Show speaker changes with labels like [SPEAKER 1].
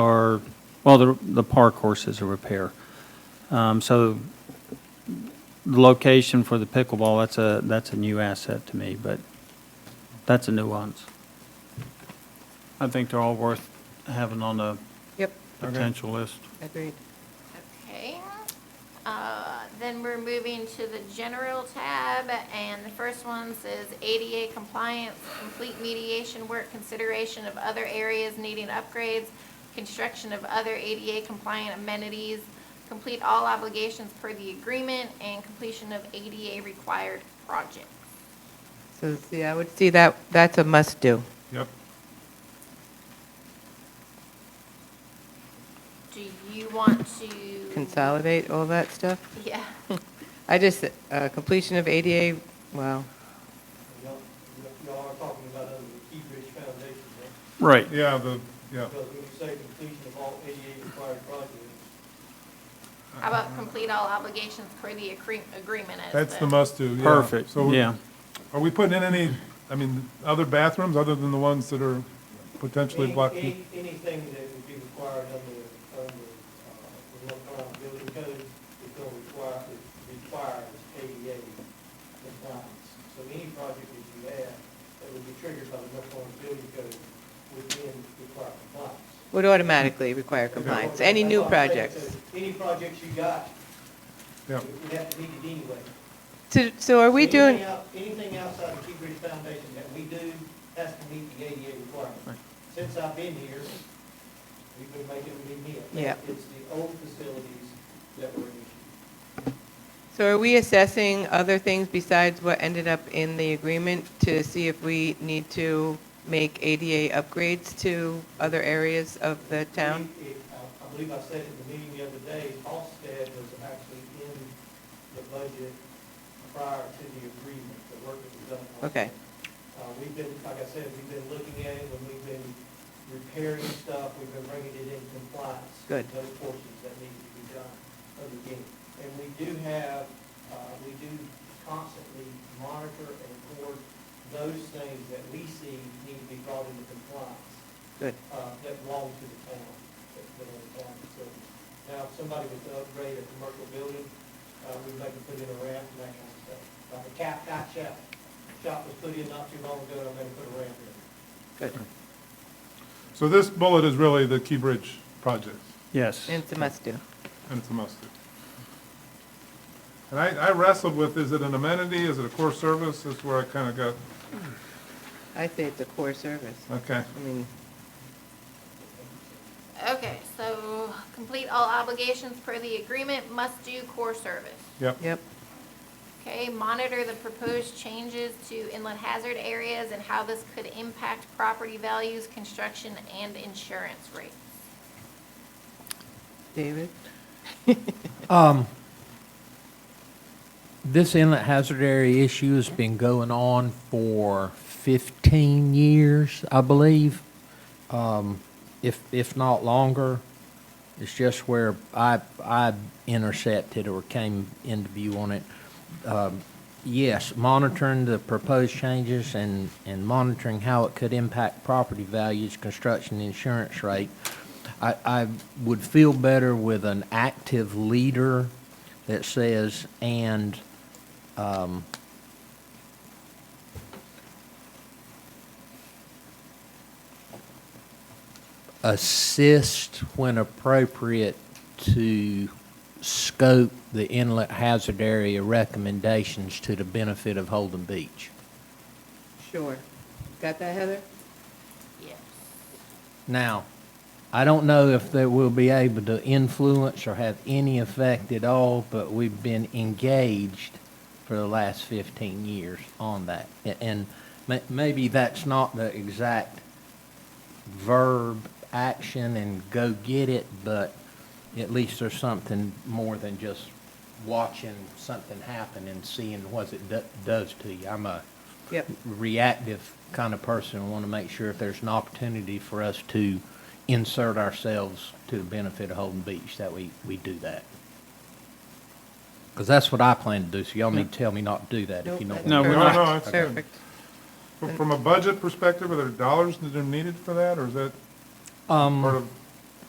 [SPEAKER 1] are, well, the, the park course is a repair. Um, So the location for the pickleball, that's a, that's a new asset to me, but that's a nuance. I think they're all worth having on the
[SPEAKER 2] Yep,
[SPEAKER 1] potential list.
[SPEAKER 2] agreed.
[SPEAKER 3] Okay, uh, then we're moving to the general tab, and the first one says ADA compliance, complete mediation work, consideration of other areas needing upgrades, construction of other ADA compliant amenities, complete all obligations per the agreement, and completion of ADA required projects.
[SPEAKER 2] So, see, I would see that, that's a must-do.
[SPEAKER 4] Yep.
[SPEAKER 3] Do you want to?
[SPEAKER 2] Consolidate all that stuff.
[SPEAKER 3] Yeah,
[SPEAKER 2] I just, uh, completion of ADA, wow,
[SPEAKER 5] Y'all y'all are talking about under the Key Bridge Foundation, right?
[SPEAKER 1] Right.
[SPEAKER 4] Yeah, the, yeah,
[SPEAKER 5] Because when you say completion of all ADA required projects,
[SPEAKER 3] how about complete all obligations per the accre- agreement as
[SPEAKER 4] that's the must-do, yeah.
[SPEAKER 1] Perfect,
[SPEAKER 4] So
[SPEAKER 1] yeah.
[SPEAKER 4] Are we putting in any, I mean, other bathrooms other than the ones that are potentially
[SPEAKER 5] any-
[SPEAKER 4] blocking?
[SPEAKER 5] any- Anything that would be required under, under, uh, the North Carolina Building Code is going to require, it requires ADA compliance. So any project that you have that would be triggered by the North Carolina Building Code would then require compliance.
[SPEAKER 2] would automatically require compliance, any new
[SPEAKER 5] That's what I'm saying.
[SPEAKER 2] projects.
[SPEAKER 5] So Any projects you got,
[SPEAKER 4] Yeah,
[SPEAKER 5] would have to meet it anyway.
[SPEAKER 2] So, so are we doing,
[SPEAKER 5] Anything out- Anything outside the Key Bridge Foundation that we do has to meet the ADA requirement. Since I've been here, we've been making them meet it.
[SPEAKER 2] Yeah.
[SPEAKER 5] It's the old facilities that were an issue.
[SPEAKER 2] so are we assessing other things besides what ended up in the agreement to see if we need to make ADA upgrades to other areas of the town?
[SPEAKER 5] We- it- I I believe I said at the meeting the other day, Halsted was actually in the budget prior to the agreement, the work that was done. on
[SPEAKER 2] Okay,
[SPEAKER 5] Uh, we've been, like I said, we've been looking at it, and we've been repairing stuff, we've been bringing it in compliance.
[SPEAKER 2] Good.
[SPEAKER 5] Those portions that need to be done of the game. And we do have, uh, we do constantly monitor and record those things that we see need to be brought into compliance,
[SPEAKER 2] good.
[SPEAKER 5] uh, that belong to the town, that that are the town facility. Now, if somebody was to upgrade a commercial building, uh, we'd like to put in a ramp and that kind of stuff. Like the cap, cot shop, shop was put in not too long ago, and I'm gonna put a ramp in.
[SPEAKER 2] Good.
[SPEAKER 4] so this bullet is really the Key Bridge project,
[SPEAKER 1] Yes.
[SPEAKER 2] It's a must-do.
[SPEAKER 4] and it's a must-do. And I, I wrestled with, is it an amenity, is it a core service, that's where I kind of got,
[SPEAKER 2] I say it's a core service.
[SPEAKER 4] okay.
[SPEAKER 2] I mean,
[SPEAKER 3] Okay, so complete all obligations per the agreement, must do core service.
[SPEAKER 4] Yep,
[SPEAKER 2] yep,
[SPEAKER 3] Okay, monitor the proposed changes to inland hazard areas and how this could impact property values, construction, and insurance rates.
[SPEAKER 2] David?
[SPEAKER 6] Um, This inlet hazard area issue has been going on for 15 years, I believe, um, if, if not longer. It's just where I, I intercepted or came into view on it. Um, Yes, monitoring the proposed changes and, and monitoring how it could impact property values, construction, insurance rate. I, I would feel better with an active leader that says, and, um, assist when appropriate to scope the inlet hazard area recommendations to the benefit of Holden Beach.
[SPEAKER 2] Sure. Got that, Heather?
[SPEAKER 3] Yes.
[SPEAKER 6] Now, I don't know if they will be able to influence or have any effect at all, but we've been engaged for the last 15 years on that. A- And ma- maybe that's not the exact verb, action, and go get it, but at least there's something more than just watching something happen and seeing what it do- does to you. I'm a
[SPEAKER 2] Yep.
[SPEAKER 6] reactive kind of person. I want to make sure if there's an opportunity for us to insert ourselves to the benefit of Holden Beach, that we, we do that. Because that's what I plan to do, so y'all need to tell me not to do that if you
[SPEAKER 2] Nope, that's
[SPEAKER 6] don't.
[SPEAKER 1] No,
[SPEAKER 6] want
[SPEAKER 1] we're
[SPEAKER 2] perfect.
[SPEAKER 4] not. No, no, it's good.
[SPEAKER 2] Perfect.
[SPEAKER 4] Fr- From a budget perspective, are there dollars that are needed for that, or is that
[SPEAKER 6] Um,
[SPEAKER 4] part of